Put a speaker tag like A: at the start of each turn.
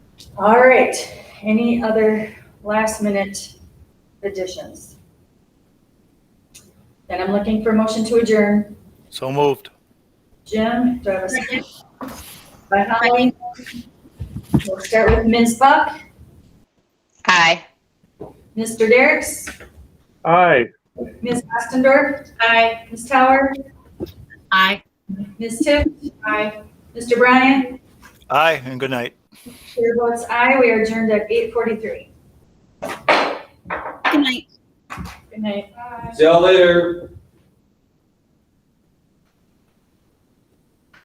A: All right, any other last minute additions? Then I'm looking for motion to adjourn.
B: So moved.
A: Jim, do I have a second? By Holly. We'll start with Ms. Buck,
C: Aye.
A: Mr. Derrick's,
D: Aye.
A: Ms. Ostendorf. Aye. Ms. Tower,
C: Aye.
A: Ms. Tiff. Aye. Mr. Bryan,
B: Aye, and good night.
A: chair votes aye. We are adjourned at eight forty-three. Good night. Good night.
E: See y'all later.